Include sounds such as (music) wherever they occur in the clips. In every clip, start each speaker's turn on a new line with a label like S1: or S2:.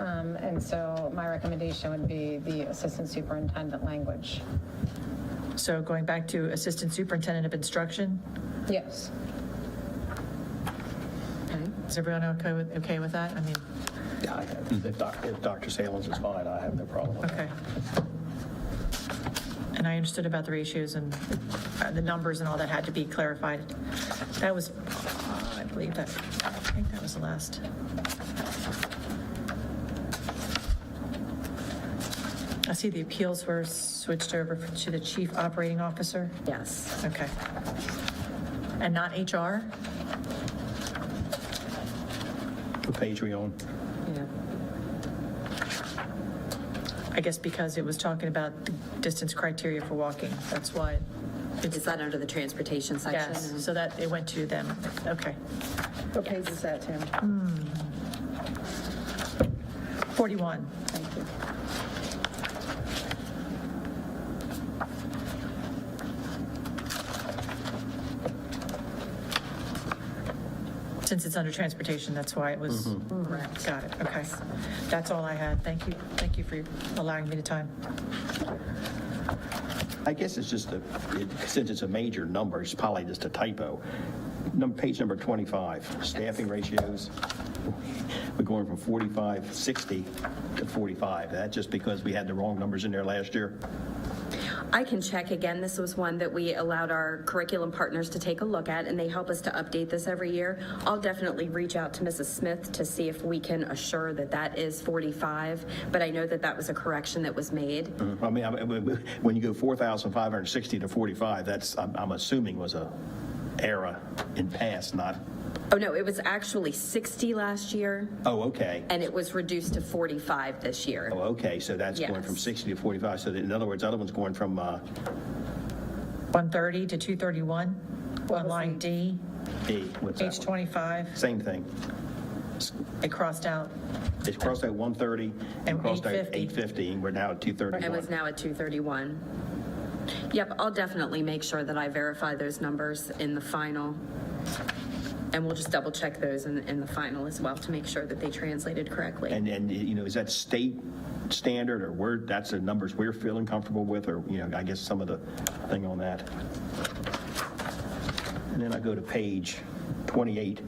S1: Um, so my recommendation would be the assistant superintendent language.
S2: So going back to Assistant Superintendent of Instruction,
S1: Yes.
S2: is everyone okay with, okay with that? I mean,
S3: I- If Doc- if Dr. Salins is fine, I have no problem with that.
S2: okay. And I understood about the ratios and uh, the numbers and all that had to be clarified. That was, uh, I believe that, I think that was the last. I see the appeals were switched over to the Chief Operating Officer.
S4: Yes.
S2: Okay. And not HR?
S3: What page we on?
S4: Yeah.
S2: I guess because it was talking about the distance criteria for walking, that's why.
S4: Is that under the transportation section?
S2: Yes, so that, it went to them, okay. Hmm.
S5: What page is that, Tim?
S2: 41,
S5: Thank you.
S2: since it's under transportation, that's why it was, got it, okay. That's all I had, thank you, thank you for allowing me the time.
S3: I guess it's just a, it- since it's a major number, it's probably just a typo. Num- Page number 25, staffing ratios, we're going from 45, 60 to 45. That just because we had the wrong numbers in there last year?
S4: I can check again. This was one that we allowed our curriculum partners to take a look at, and they help us to update this every year. I'll definitely reach out to Mrs. Smith to see if we can assure that that is 45, but I know that that was a correction that was made.
S3: I mean, I- when when you go 4,560 to 45, that's, I'm I'm assuming was a error in past, not,
S4: Oh, no, it was actually 60 last year,
S3: oh, okay.
S4: and it was reduced to 45 this year.
S3: Oh, okay, so that's going from
S4: Yes.
S3: 60 to 45, so in other words, the other one's going from, uh,
S2: 130 to 231, on line D,
S3: D, what's that
S2: page
S3: one?
S2: 25,
S3: Same thing.
S2: it crossed out,
S3: It's crossed out 130 and
S2: And
S3: crossed out
S2: 850.
S3: 850, and we're now at
S4: It was
S3: 231.
S4: now at 231. Yep, I'll definitely make sure that I verify those numbers in the final. And we'll just double check those in, in the final as well to make sure that they translated correctly.
S3: And, and, you know, is that state standard, or where, that's the numbers we're feeling comfortable with, or, you know, I guess some of the thing on that. And then I go to page 28.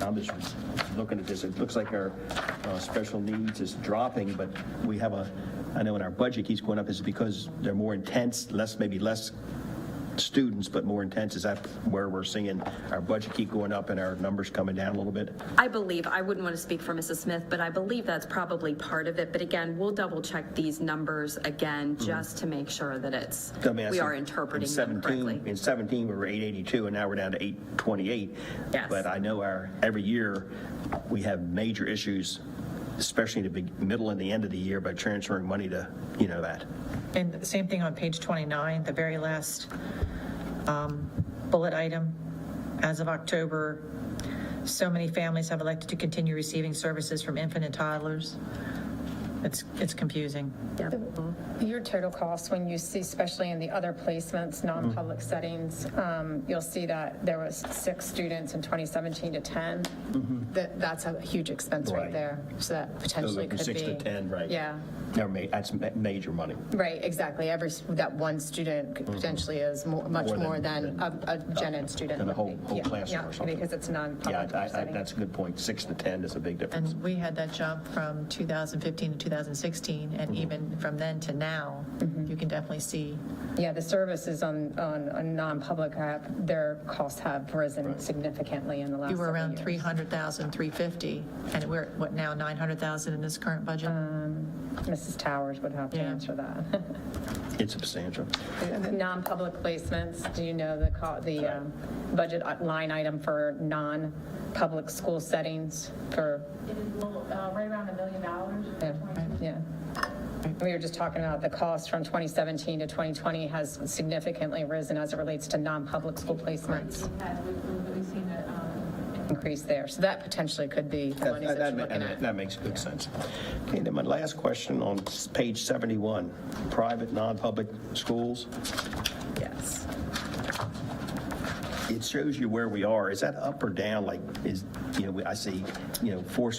S3: I'm just looking at this, it looks like our uh, special needs is dropping, but we have a, I know in our budget keeps going up, is it because they're more intense, less, maybe less students, but more intense? Is that where we're seeing our budget keep going up and our numbers coming down a little bit?
S4: I believe, I wouldn't want to speak for Mrs. Smith, but I believe that's probably part of it. But again, we'll double check these numbers again
S3: Mm-hmm.
S4: just to make sure that it's,
S3: I mean, I
S4: we
S3: see
S4: are
S3: in
S4: interpreting them
S3: 17
S4: correctly.
S3: In 17, we were 882, and now we're down to 828.
S4: Yes.
S3: But I know our, every year, we have major issues, especially in the big- middle and the end of the year, by transferring money to, you know, that.
S2: and the same thing on page 29, the very last um, bullet item, as of October, so many families have elected to continue receiving services from infant and toddlers. It's, it's confusing.
S1: Your total cost, when you see, especially in the other placements, non-public
S3: Mm-hmm.
S1: settings, um, you'll see that there was six students in 2017 to 10. That, that's a huge expense right
S3: Mm-hmm. Right.
S1: there, so that potentially
S3: from
S1: could be.
S3: six to 10, right.
S1: Yeah,
S3: Now, ma- That's ma- major money.
S1: right, exactly. Every, s- that one student could potentially is mo- much
S3: Mm-hmm. More
S1: more
S3: than-
S1: than a a gen ed student.
S3: than a
S1: would
S3: whole-
S1: be.
S3: whole
S1: Yeah,
S3: classroom or
S1: yeah,
S3: something.
S1: Because it's
S3: Yeah,
S1: non-public
S3: I- I-
S1: setting.
S3: that's a good point. Six to 10 is a big difference.
S2: And we had that jump from 2015 to 2016, and
S3: Mm-hmm.
S2: even from then to now, you can definitely see.
S1: Yeah, the services on, on a non-public app, their costs have risen significantly in the last
S2: You were
S1: several
S2: around
S1: years.
S2: 300,000, 350, and we're, at, what, now 900,000 in this current budget?
S1: Mrs. Towers would have to
S2: Yeah.
S1: answer that. (laughs)
S3: It's substantial.
S1: The Non-public placements, do you know the, co- the um, budget line item for non-public school settings for,
S6: It is a little, uh, right around a million dollars.
S1: yeah, yeah. We were just talking about the cost from 2017 to 2020 has significantly risen as it relates to non-public school placements
S6: We've had- we've- We've seen it, um,
S1: increase there. So that potentially could be the
S3: That-
S1: monies that
S3: That
S1: you're looking
S3: that-
S1: at.
S3: that makes good sense. Okay, then my last question on s- page 71, private, non-public schools.
S4: Yes.
S3: it shows you where we are. Is that up or down? Like, is, you know, I see, you know, four